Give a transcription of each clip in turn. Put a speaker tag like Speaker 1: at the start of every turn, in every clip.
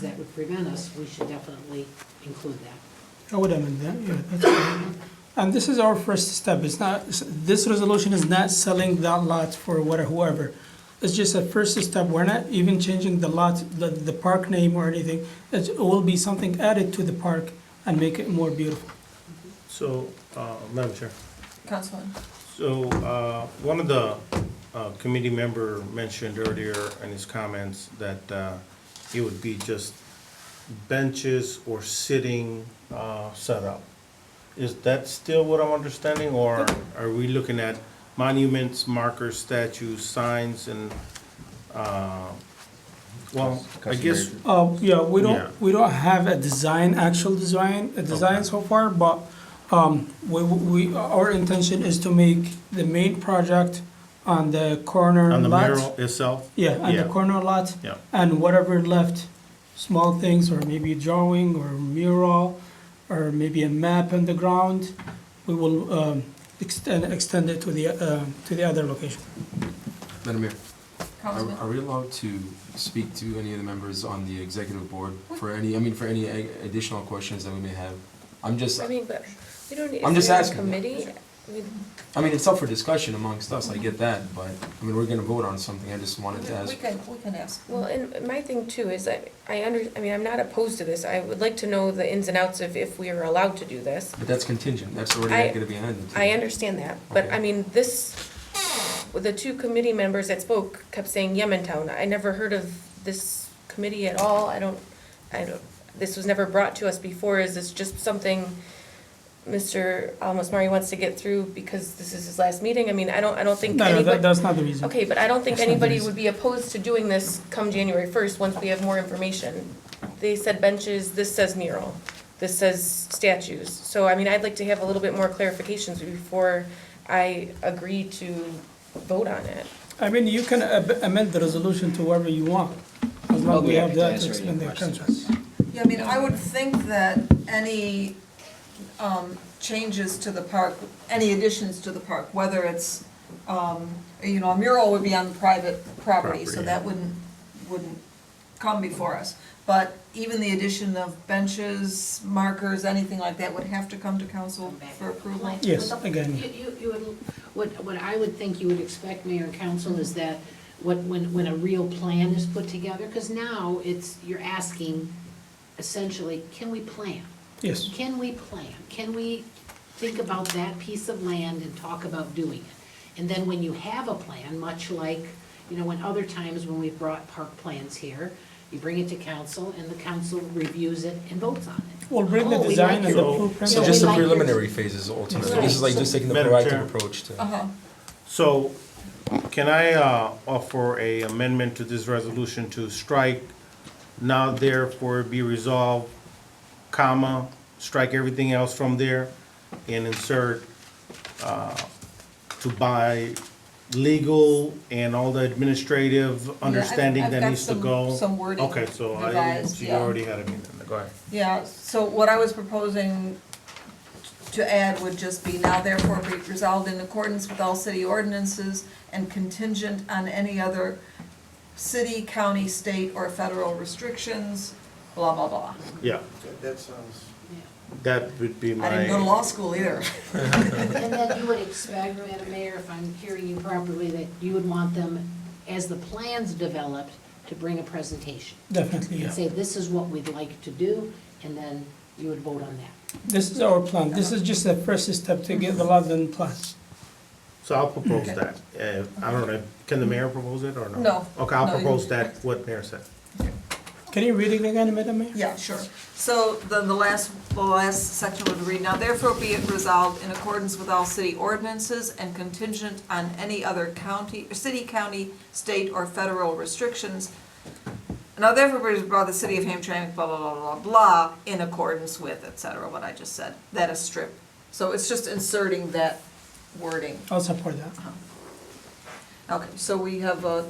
Speaker 1: that would prevent us, we should definitely include that.
Speaker 2: I would amend that, yeah, that's fine. And this is our first step, it's not, this resolution is not selling that lot for whatever, whoever. It's just a first step, we're not even changing the lot, the, the park name or anything. It will be something added to the park and make it more beautiful.
Speaker 3: So, uh, Madam Chair,
Speaker 4: Councilman.
Speaker 3: so, uh, one of the, uh, committee member mentioned earlier in his comments that, uh, it would be just benches or sitting, uh, setup. Is that still what I'm understanding, or are we looking at monuments, markers, statues, signs, and, uh, well, I guess,
Speaker 2: Uh, yeah, we
Speaker 3: Yeah.
Speaker 2: don't, we don't have a design, actual design, a design so far, but, um, we, we, our intention is to make the main project on the corner
Speaker 3: on the
Speaker 2: lot.
Speaker 3: mural itself?
Speaker 2: Yeah, on the
Speaker 3: Yeah.
Speaker 2: corner lot.
Speaker 3: Yeah.
Speaker 2: And whatever left, small things, or maybe a drawing, or mural, or maybe a map on the ground, we will um, extend, extend it to the, uh, to the other location.
Speaker 5: Madam Mayor, are
Speaker 4: Councilman.
Speaker 5: are we allowed to speak to any of the members on the executive board for any, I mean, for any a- additional questions that we may have? I'm just,
Speaker 6: I mean, but we don't, if
Speaker 5: I'm just
Speaker 6: we're a
Speaker 5: asking.
Speaker 6: committee, we,
Speaker 5: I mean, it's up for discussion amongst us, I get that, but, I mean, we're gonna vote on something, I just wanted to
Speaker 4: We
Speaker 5: ask.
Speaker 4: can, we can ask.
Speaker 6: well, and my thing too is I, I under, I mean, I'm not opposed to this. I would like to know the ins and outs of if we are allowed to do this.
Speaker 5: But that's contingent, that's
Speaker 6: I-
Speaker 5: already not gonna be handed to.
Speaker 2: Mm-hmm.
Speaker 6: I understand that, but I
Speaker 5: Okay.
Speaker 6: mean, this, the two committee members that spoke kept saying Yemen Town. I never heard of this committee at all. I don't, I don't, this was never brought to us before. Is this just something Mr. Almasmari wants to get through because this is his last meeting? I mean, I don't, I don't think
Speaker 2: No, no,
Speaker 6: anybody.
Speaker 2: that, that's not the reason.
Speaker 6: Okay, but I don't think
Speaker 2: That's not the
Speaker 6: anybody
Speaker 2: reason.
Speaker 6: would be opposed to doing this come January first, once we have more information. They said benches, this says mural, this says statues. So, I mean, I'd like to have a little bit more clarifications before I agree to vote on it.
Speaker 2: I mean, you can ab- amend the resolution to wherever you want, as long
Speaker 7: I'll
Speaker 2: as we
Speaker 7: be
Speaker 2: have
Speaker 7: happy to
Speaker 2: that to
Speaker 7: answer
Speaker 2: expand
Speaker 7: any
Speaker 2: the contract.
Speaker 7: questions.
Speaker 4: Yeah, I mean,
Speaker 6: um,
Speaker 4: I would think that any um, changes to the park, any additions to the park, whether it's, um, you know, a mural would be on private property, so
Speaker 3: Property.
Speaker 4: that wouldn't, wouldn't come before us. But even the addition of benches, markers, anything like that would have to come to council for approval.
Speaker 2: Yes, again.
Speaker 1: You, you- you would, what, what I would think you would expect, Mayor and Council, is that what, when, when a real plan is put together, because now it's, you're asking essentially, can we plan?
Speaker 2: Yes.
Speaker 1: Can we plan? Can we think about that piece of land and talk about doing it? And then when you have a plan, much like, you know, when other times when we've brought park plans here, you bring it to council and the council reviews it and votes on it.
Speaker 2: We'll bring the
Speaker 1: Oh, we
Speaker 2: design
Speaker 1: like
Speaker 2: and the
Speaker 3: your-
Speaker 2: blueprint.
Speaker 5: So
Speaker 1: Yeah, we
Speaker 5: just the
Speaker 1: like this.
Speaker 5: preliminary phases ultimately,
Speaker 1: Right.
Speaker 5: this is like just taking the
Speaker 3: Madam Chair.
Speaker 5: proactive approach to.
Speaker 4: Uh-huh.
Speaker 3: So, can I uh, offer a amendment to this resolution to strike now therefore be resolved, comma, strike everything else from there and insert uh, to buy legal and all the administrative understanding
Speaker 4: I've
Speaker 3: that
Speaker 4: got
Speaker 3: needs to
Speaker 4: some-
Speaker 3: go?
Speaker 4: some wording
Speaker 3: Okay, so I,
Speaker 4: revised,
Speaker 3: so you
Speaker 4: yeah.
Speaker 3: already had a meeting, go ahead.
Speaker 4: Yeah, so what I was proposing to add would just be now therefore be resolved in accordance with all city ordinances and contingent on any other city, county, state, or federal restrictions, blah, blah, blah.
Speaker 3: Yeah,
Speaker 7: That sounds.
Speaker 3: that would be
Speaker 4: I
Speaker 3: my.
Speaker 4: didn't go to law school either.
Speaker 1: And then you would expect, Madam Mayor, if I'm hearing you properly, that you would want them, as the plans developed, to bring a presentation.
Speaker 2: Definitely,
Speaker 1: And
Speaker 2: yeah.
Speaker 1: say, this is what we'd like to do, and then you would vote on that.
Speaker 2: This is our plan, this is just the first step to get the lot and plan.
Speaker 3: So I'll propose that. Uh, I don't know, can the mayor propose it or no?
Speaker 4: No.
Speaker 3: Okay,
Speaker 4: No,
Speaker 3: I'll
Speaker 4: you-
Speaker 3: propose that, what mayor said.
Speaker 2: Can you read it again, Madam Mayor?
Speaker 4: Yeah, sure. So then the last, the last section would read, now therefore be it resolved in accordance with all city ordinances and contingent on any other county, city, county, state, or federal restrictions. Now therefore be brought the city of Hamtramck, blah, blah, blah, blah, blah, blah, in accordance with, et cetera, what I just said, that is strip. So it's just inserting that wording. Uh-huh.
Speaker 2: I'll support that.
Speaker 4: Okay, so we have a,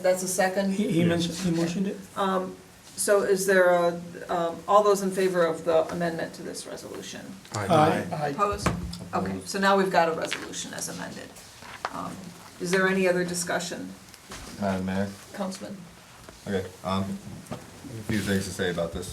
Speaker 4: that's a second?
Speaker 2: He, he mentioned, he motioned it.
Speaker 4: So is there a, um, all those in favor of the amendment to this resolution?
Speaker 2: Aye.
Speaker 4: Opposed? Okay, so now we've got a resolution as amended. Um, Is there any other discussion,
Speaker 7: Madam Mayor,
Speaker 4: Councilman?
Speaker 8: Okay, um, a few things to say about this.